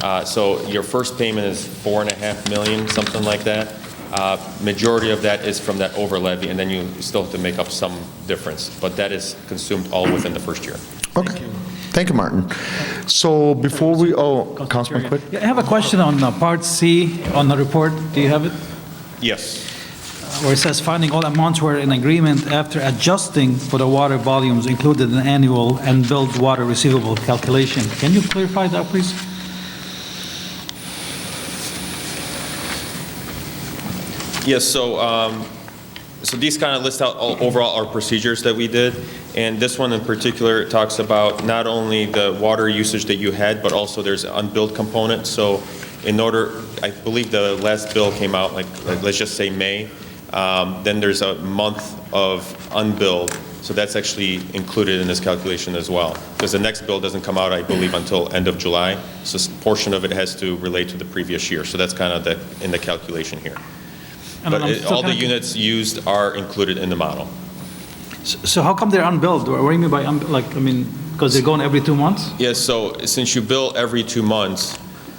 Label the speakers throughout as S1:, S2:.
S1: Uh, So your first payment is four and a half million, something like that. Uh, Majority of that is from that over levy, and then you still have to make up some difference, but that is consumed all within the first year.
S2: Okay. Thank you, Martin. So before we, oh, Councilman Quick?
S3: Yeah, I have a question on uh, Part C on the report. Do you have it?
S1: Yes.
S3: Where it says finding all amounts were in agreement after adjusting for the water volumes included in the annual and billed water receivable calculation. Can you clarify that, please?
S1: Yes, so, um, so these kind of list out all- overall our procedures that we did, and this one in particular talks about not only the water usage that you had, but also there's unbilled component, so in order, I believe the last bill came out, like, like, let's just say May, um, then there's a month of unbilled, so that's actually included in this calculation as well, because the next bill doesn't come out, I believe, until end of July, so s- portion of it has to relate to the previous year, so that's kind of the, in the calculation here.
S3: And
S1: But
S3: I'm
S1: it-
S3: still
S1: all the
S3: kinda-
S1: units used are included in the model.
S3: S- So how come they're unbilled? What do you mean by, unb- like, I mean, because they're going every two months?
S1: Yes, so since you bill every two months,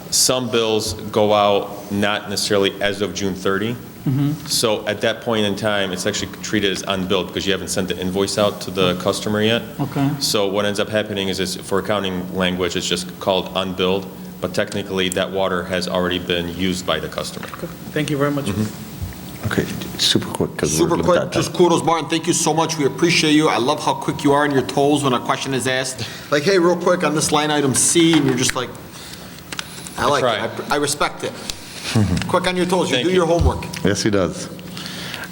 S1: some bills go out not necessarily as of June 30.
S3: Mm-hmm.
S1: So at that point in time, it's actually treated as unbilled because you haven't sent the invoice out to the customer yet.
S3: Okay.
S1: So what ends up happening is, it's for accounting language, it's just called unbilled, but technically, that water has already been used by the customer.
S3: Thank you very much.
S1: Mm-hmm.
S2: Okay, super quick. 'cause we're
S4: Super
S2: limited
S4: quick,
S2: on
S4: just
S2: time.
S4: kudos, Martin, thank you so much, we appreciate you, I love how quick you are on your toes when a question is asked. Like, hey, real quick, on this line item C, and you're just like, I like it,
S1: try.
S4: I- I respect it. Quick on your toes, you
S1: Thank
S4: do
S1: you.
S4: your homework.
S2: Yes, he does.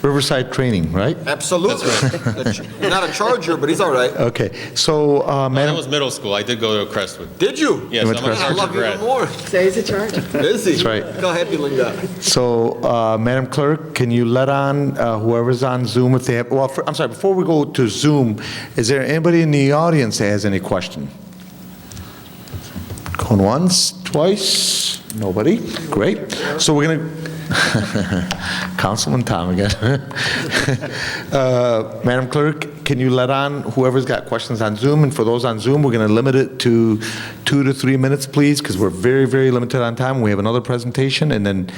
S2: Riverside Training, right?
S4: Absolutely. That's- Not a Charger, but he's all right.
S2: Okay, so, uh,
S1: That
S2: Madam,
S1: was middle school. I did go to Crestwood.
S4: Did you?
S1: Yes,
S2: You went
S1: I'm
S2: to
S1: a
S2: Crestwood?
S4: I
S1: Charger
S4: love you
S1: grad.
S4: even more.
S5: So he's a charge.
S4: Is he?
S2: That's right.
S4: Go ahead, Belinda.
S2: so, uh, Madam Clerk, can you let on uh, whoever's on Zoom if they have, well, for- I'm sorry, before we go to Zoom, is there anybody in the audience that has any question? Going once, twice, nobody? Great. So we're going to, Councilman Tom again. Uh, Madam Clerk, can you let on whoever's got questions on Zoom? And for those on Zoom, we're going to limit it to two to three minutes, please, because we're very, very limited on time. We have another presentation and then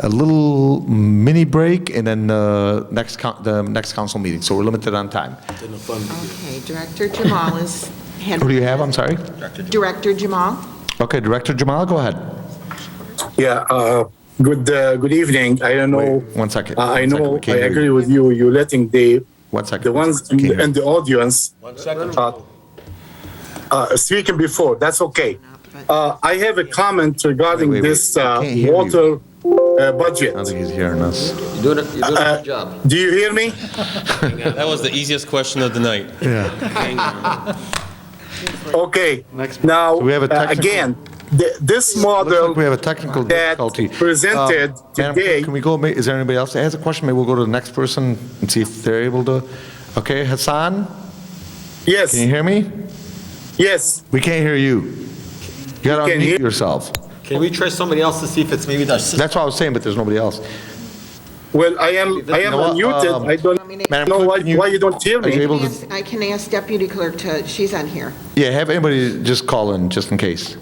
S2: a little mini break and then uh, next coun- the next council meeting. So we're limited on time.
S5: Okay, Director Jamal is.
S2: Who do you have? I'm sorry.
S5: Director Jamal.
S2: Okay, Director Jamal, go ahead.
S6: Yeah, uh, good, uh, good evening. I don't know.
S2: Wait, one second.
S6: Uh, I
S2: One second.
S6: know,
S2: We
S6: I
S2: can't hear
S6: agree
S2: you.
S6: with you. You're letting the,
S2: One second.
S6: the ones
S2: Can't
S6: in
S2: hear.
S6: in the audience uh, uh, speaking before, that's okay. Uh, I have a comment regarding
S2: Wait, wait, wait.
S6: this uh,
S2: I can't hear you.
S6: water uh,
S2: I don't
S6: budget.
S2: think he's hearing us.
S4: You're doing a good job.
S6: Do you hear me?
S1: That was the easiest question of the night.
S6: Okay. Now,
S2: So we have a
S6: uh,
S2: technical-
S6: again, th- this
S2: Looks
S6: model
S2: like we have a technical
S6: that
S2: difficulty.
S6: presented
S2: Um, Madam Clerk,
S6: today-
S2: Can we go, ma- is there anybody else that has a question? Maybe we'll go to the next person and see if they're able to. Okay, Hassan,
S6: yes,
S2: can you hear me?
S6: yes.
S2: We can't hear you. You gotta
S6: can hear-
S2: unmute yourself.
S4: Can we try somebody else to see if it's maybe the assistant?
S2: That's what I was saying, but there's nobody else.
S6: Well, I am, I am
S2: know what, um,
S6: unmuted. I don't
S2: Madam
S6: know
S2: Clerk,
S6: why,
S2: can you-
S6: why you don't hear
S2: Are you
S6: me.
S2: able to,
S5: Yes, I can ask Deputy Clerk to, she's on here.
S2: yeah, have anybody just call in, just in case.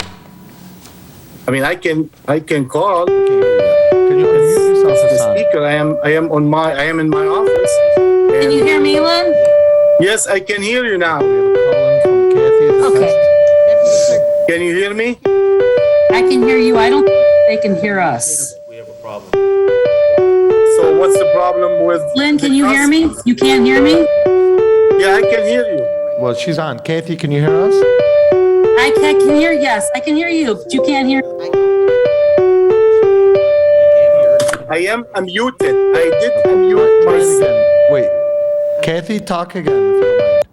S6: I mean, I can, I can call.
S2: Can you unmute yourself,
S6: As the
S2: Hassan?
S6: speaker, I am, I am on my, I am in my office.
S7: Can you hear me, Lynn?
S6: Yes, I can hear you now.
S7: Okay,
S5: Deputy Clerk,
S6: Can you hear me?
S7: I can hear you. I don't think they can hear us.
S6: So what's the problem with?
S7: Lynn, can you hear me? You can't hear me?
S6: Yeah, I can hear you.
S2: Well, she's on. Kathy, can you hear us?
S7: I ca- can hear, yes, I can hear you, but you can't hear.
S6: I am unmuted. I did unmute
S2: Try it
S6: myself.
S2: again. Wait, Kathy, talk again. if you don't mind.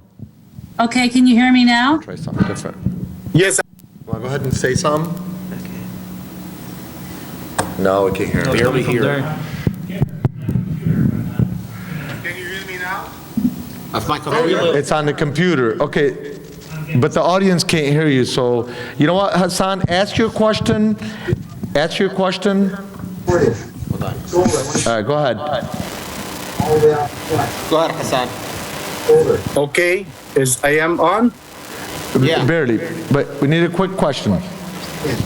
S7: Okay, can you hear me now?
S2: Try something different.
S6: Yes,
S2: Want to go ahead and say something? No, we can't hear.
S3: No, it's coming from there.
S6: Can you hear me now?
S4: If my computer-
S2: It's on the computer, okay. But the audience can't hear you, so, you know what, Hassan, ask your question, ask your question. All right, go ahead.
S4: Go ahead, Hassan.
S6: Okay, is, I am on?
S4: Yeah.
S2: Barely, but we need a quick question.